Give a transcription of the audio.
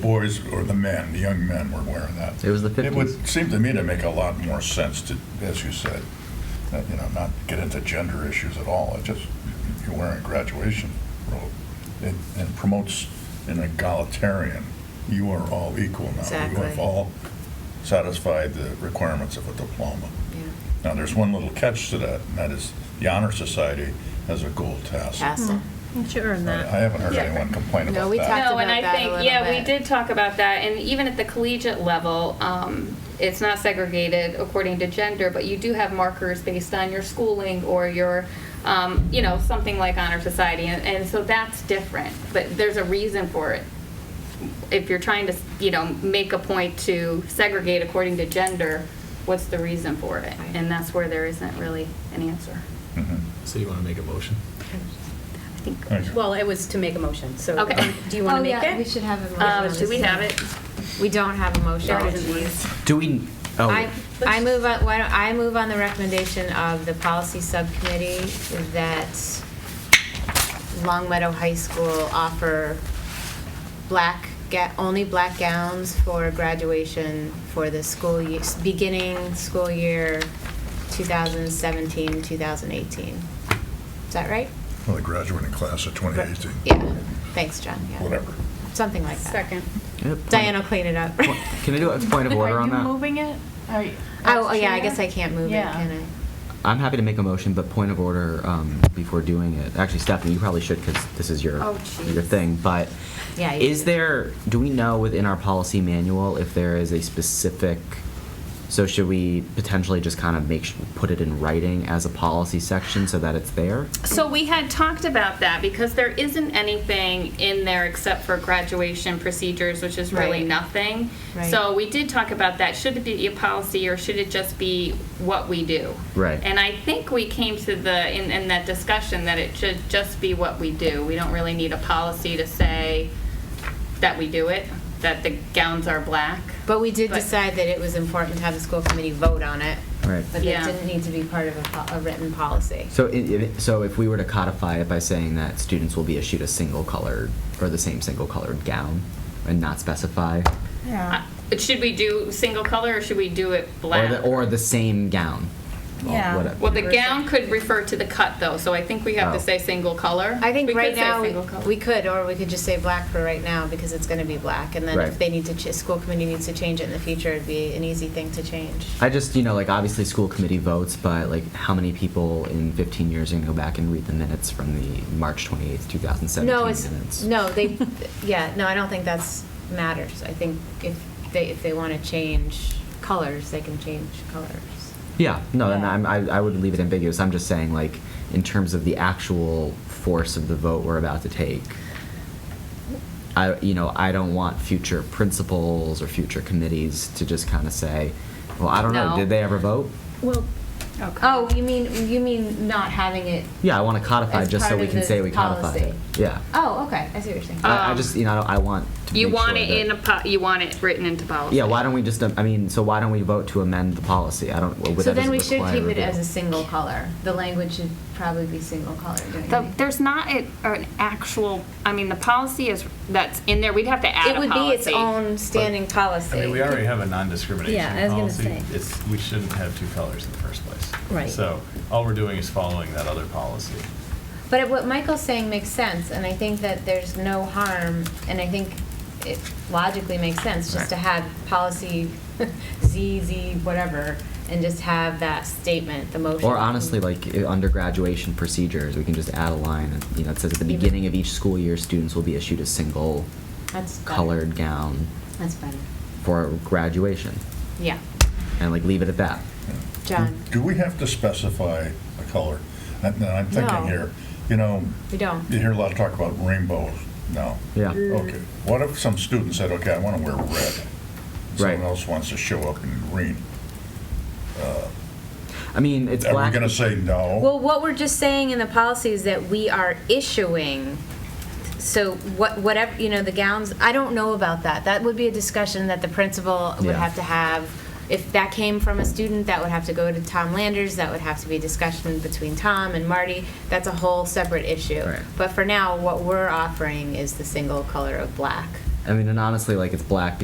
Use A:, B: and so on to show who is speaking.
A: boys or the men, the young men were wearing that.
B: It was the
A: It
B: 50s.
A: would seem to me to make a lot more sense to, as you said, not, you know, not get into gender issues at all. It just, you're wearing a graduation robe. It, it promotes an egalitarian, you are all equal now. You
C: Exactly.
A: have all satisfied the requirements of a diploma.
C: Yeah.
A: Now, there's one little catch to that, and that is the Honor Society has a gold tassel.
C: Tassel.
D: Sure, and
A: I
D: that.
A: I haven't heard
D: Yeah.
A: anyone complain
C: No,
A: about that.
C: we talked
E: No, and
C: about
E: I
C: that a
E: think,
C: little
E: yeah, we
C: bit.
E: did talk about that, and even at the collegiate level, um, it's not segregated according to gender, but you do have markers based on your schooling or your, um, you know, something like honor society, and, and so that's different, but there's a reason for it. If you're trying to, you know, make a point to segregate according to gender, what's the reason for it?
C: Right.
E: And that's where there isn't really an answer,
A: Mhm.
B: So you want to make a motion?
E: I think.
A: Thank you.
D: Well, it was to make a motion, so. um,
E: Okay.
D: Do you want
E: Oh,
D: to make
E: yeah,
C: We
D: it?
C: should have a motion.
E: Uh,
C: on
E: do we
C: this.
E: have it?
C: We don't have a motion.
E: There
C: Oh,
E: isn't one.
C: geez.
B: Do we,
C: I,
B: oh,
C: I move on, why don't, I move on the recommendation of the policy subcommittee that Long Meadow High School offer black, ga- only black gowns for graduation for the school, ye- beginning school year 2017, 2018. Is that right?
A: Well, the graduating class of 2018.
C: Yeah, thanks, John, yeah,
A: Whatever.
C: something like that.
D: Second.
B: yeah, point-
C: Diane will clean it up.
B: point- Can I do a point of order on
F: Are you
B: that?
F: moving it? Are you-
C: Oh, oh,
F: as
C: yeah, I
F: chair?
C: guess I can't move it,
F: Yeah.
C: can I?
B: I'm happy to make a motion, but point of order um, before doing it. Actually, Stephanie, you probably should because this is your
E: Oh,
B: your
E: jeez.
B: thing. But
C: Yeah, you
B: is
C: should.
B: there? Do we know within our policy manual if there is a specific? So should we potentially just kind of make sh- put it in writing as a policy section so that it's there?
E: So we had talked about that because there isn't anything in there except for graduation procedures, which is really
C: Right.
E: nothing.
C: Right.
E: So we did talk about that. Should it be a policy or should it just be what we do?
B: Right.
E: And I think we came to the, in, in that discussion, that it should just be what we do. We don't really need a policy to say that we do it, that the gowns are black.
C: But we did
E: But-
C: decide that it was important to have the school committee vote on it,
B: Right.
C: but that
E: Yeah.
C: didn't need to be part of a, po- a written policy.
B: So i i so if we were to codify it by saying that students will be issued a single colored or the same single colored gown and not specify
F: Yeah.
E: Uh, Should we do single color or should we do it
B: or
E: black?
B: the, or the same gown. Well,
F: Yeah.
B: whatever.
E: Well, the gown could refer to the cut, though, so I think we have to
B: Oh.
E: say single color.
C: I think
E: We could
C: right
E: say
C: now, we-
E: single color.
C: we could, or we could just say black for right now, because it's gonna be black, and then
B: Right.
C: if they need to, ch- school committee needs to change it in the future, it'd be an easy thing to change.
B: I just, you know, like obviously school committee votes, but like how many people in 15 years are going to go back and read the minutes from the March 28th, 2017
C: No, it's,
B: minutes?
C: no, they, yeah, no, I don't think that's matters, I think if they, if they wanna change colors, they can change colors.
B: Yeah, no, and
F: Yeah.
B: I'm, I, I would leave it ambiguous. I'm just saying, like, in terms of the actual force of the vote we're about to take, I, you know, I don't want future principals or future committees to just kind of say, well, I don't know,
E: No.
B: did they ever vote?
C: Well. Oh, you mean, you mean not having it
B: Yeah, I want to codify
C: As
B: just so
C: part
B: we
C: of
B: can
C: the
B: say we codified it.
C: policy.
B: Yeah.
C: Oh, okay. I see what you're saying.
B: I, I
E: Um,
B: just, you know, I don't- I want to
E: You
B: make sure
E: want it
B: that-
E: in a, po- you want it written into policy.
B: Yeah, why don't we just, I mean, so why don't we vote to amend the policy? I don't, well, that
C: so then
B: doesn't
C: we should
B: require
C: keep it
B: review.
C: as a single color. The language should probably be single color. Don't you
E: The-
C: think?
E: There's not a- an actual, I mean, the policy is, that's in there, we'd have to add
C: it
E: a
C: would
E: policy.
C: be its own standing policy.
G: I mean, we already have a
D: Yeah, I
G: non-discrimination
D: was gonna
G: policy.
D: say.
G: It's, we shouldn't have two colors in the first place.
D: Right.
G: So all we're doing is following that other policy.
C: But what Michael's saying makes sense, and I think that there's no harm, and I think it logically makes sense just to have policy Z, Z, whatever, and just have that statement, the motion.
B: Or honestly, like i- under graduation procedures, we can just add a line, and, you know, it says at the
C: Even-
B: beginning of each school year, students will be issued a single
C: That's better.
B: colored gown
C: That's better.
B: for graduation,
C: Yeah.
B: and like leave it at that.
C: John,
A: Do we have to specify a color? And then I'm thinking
C: No.
A: here, you know,
C: we don't. Mm.
A: you hear a lot of talk about rainbows now.
B: Yeah.
A: Okay, what if some student said, okay, I want to wear red? Someone
B: Right.
A: else wants to show up in green. Uh,
B: I mean, it's
A: Are we
B: black.
A: going to say no?
C: Well, what we're just saying in the policy is that we are issuing, so what, whatever, you know, the gowns, I don't know about that. That would be a discussion that the principal would
B: Yeah.
C: have to have. If that came from a student, that would have to go to Tom Landers, that would have to be discussion between Tom and Marty. That's a whole separate issue.
B: Right.
C: But for now, what we're offering is the single color of black.
B: I mean, and honestly, like it's black